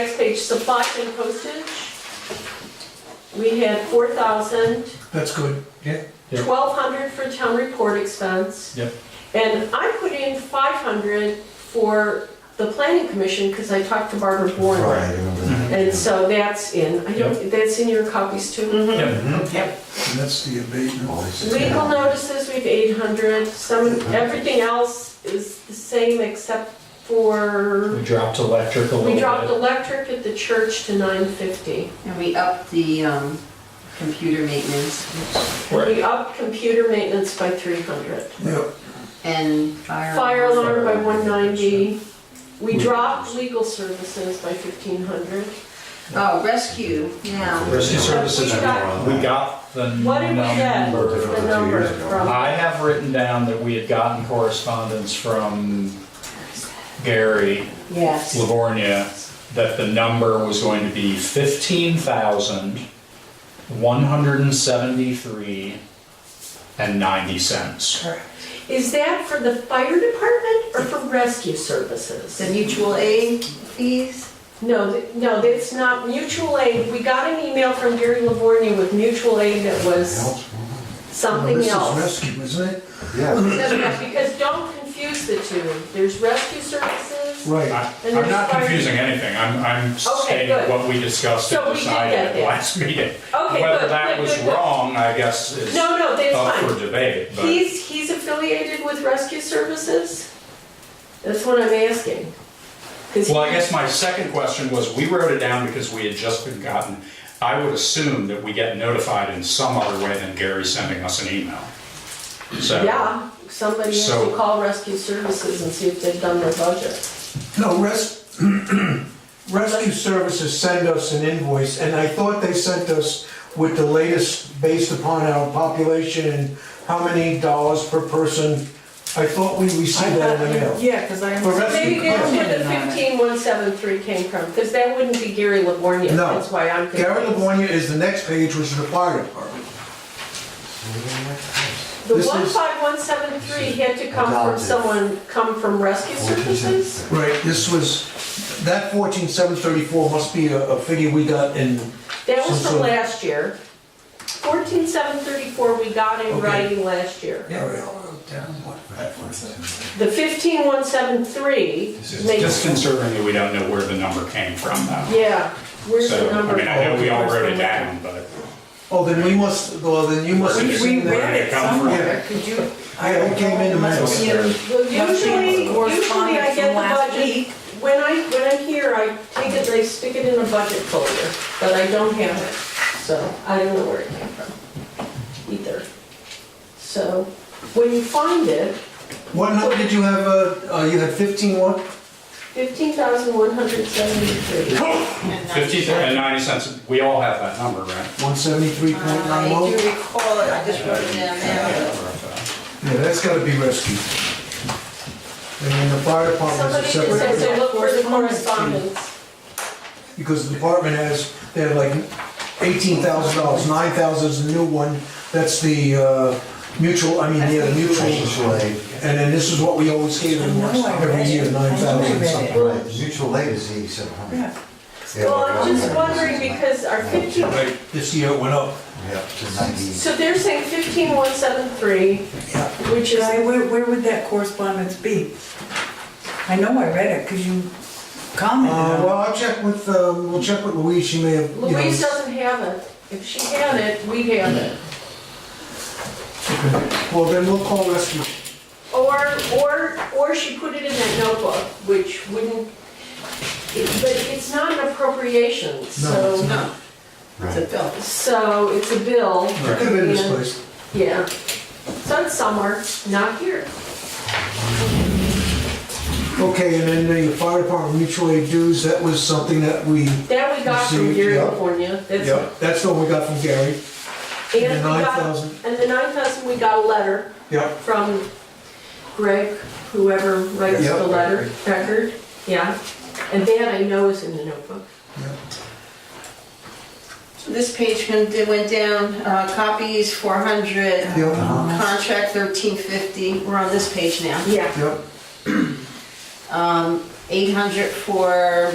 Next page, supplies and postage. We had four thousand, That's good, yeah. Yeah. twelve hundred for town report expense. Yep. And I put in five hundred for the planning commission, because I talked to Barbara Bourne. Right, I remember that. And so that's in, I don't, that's in your copies too. Yep. Yep. And that's the abatement. Oh, it's- Legal notices, we've eight hundred, some, everything else is the same except for, We dropped electric a little bit. we dropped electric at the church to nine fifty. And we upped the um, computer maintenance Right. We upped computer maintenance by 300. Yep, and fire. Fire alarm. alarm by 190. We dropped legal services by 1,500. Oh, rescue, yeah. Rescue services, We got- we got the What did we get? number. From The two number years ago. from, I have written down that we had gotten correspondence from Gary Yes. Livornia that the number was going to be fifteen thousand, one hundred and seventy-three and ninety cents. is that for the fire department or for rescue services? The mutual aid fees? No, th- no, that's not mutual aid. We got an email from Gary Livornia with mutual aid that was Helps. Well, something this is else. rescue, isn't it? Yeah, No, no, Because don't confuse the two. There's rescue services. Right, I- I'm not confusing anything, I'm, I'm stating good. what we discussed So and we did decided get at there. last meeting. Okay, Whether good, that good, was good, good. wrong, I guess, is No, no, that's uh, up fine. for debate, but He's, he's affiliated with Rescue Services? That's what I'm asking. 'Cause he- Well, I guess my second question was, we wrote it down because we had just been gotten, I would assume that we get notified in some other way than Gary sending us an email. So. Yeah, somebody has to So- call Rescue Services and see if they've done their budget. no, res, rescue services send us an invoice, and I thought they sent us with the latest based upon our population and how many dollars per person. I thought we received that in the mail. Yeah, because I. For rescue Maybe that's where the Commented on it. fifteen one seven three came from, because that wouldn't be Gary Livornia, No. that's why I'm confused. Gary Livornia is the next page, which is the fire department. The this is- one five one seven three had to come from Adopted. someone, come from Rescue Services? Right, this was, that fourteen seven thirty-four must be a, a figure we got in, That was So- from so- last year. Fourteen seven thirty-four, we got in Okay. writing last year. yeah, we all wrote down what. The fifteen one seven three It's makes, disconcerting that we don't know where the number came from though. yeah, where's So, the I number? mean, I know we all Where's the wrote it number? down, but. Oh, then we must, well, then you must. We, have we seen that. read it somewhere, Yeah. could you? Yeah, it came in the mail. Well, usually, usually I get Correspondence from the last budget, week. when I, when I'm here, I take it, I stick it in a budget folder, but I don't have it, so I don't know where it came from either. So, when you find it, What number did you have, uh, uh, you had fifteen what? fifteen thousand one hundred seventy-three. Fifty and ninety cents, we all have that number, right? One seventy-three point Uh, I nine do oh? recall it, I just wrote it down now. Yeah, that's gotta be rescued. And then the fire department Somebody is a just says separate, they look for the Correspondence. correspondence. because the department has, they have like eighteen thousand dollars, nine thousand is the new one. That's the, uh, mutual, I mean, yeah, the mutual. Mutual aid, And then this is what we always gave them I know I read every year, it. I know I nine thousand read it. something. right, mutual aid is eighty-seven hundred. Well, I'm just wondering because our fifteen, Right, this year it went up. Yeah, to ninety, so they're saying fifteen one seven three, which is, Guy, where, where would that correspondence be? I know I read it, because you commented Uh, on well, I'll check with, um, we'll check with Louise, she may have, you know. Louise uh, doesn't have it. If she had it, we'd have it. Well, then we'll call rescue. Or, or, or she put it in that notebook, which wouldn't, it- but it's not an appropriation, No, it's so, No, it's a right. bill. so it's a bill. It could have been this Yeah. place. Yeah. So it's somewhere, not here. Okay, and then the fire department mutual aid dues, that was something that we, That we got from Received, Gary, yeah. California. That's yep, that's the one we got from Gary. And we The got, 9,000. and the nine thousand, we got a letter. Yep, from Greg, whoever writes Yeah. the letter, record, yeah. And that I know is in the notebook. This page went went down, uh, copies 400, Uh-huh. yep, contract 1350, we're on this page now. Yeah. yep. Um, 800 for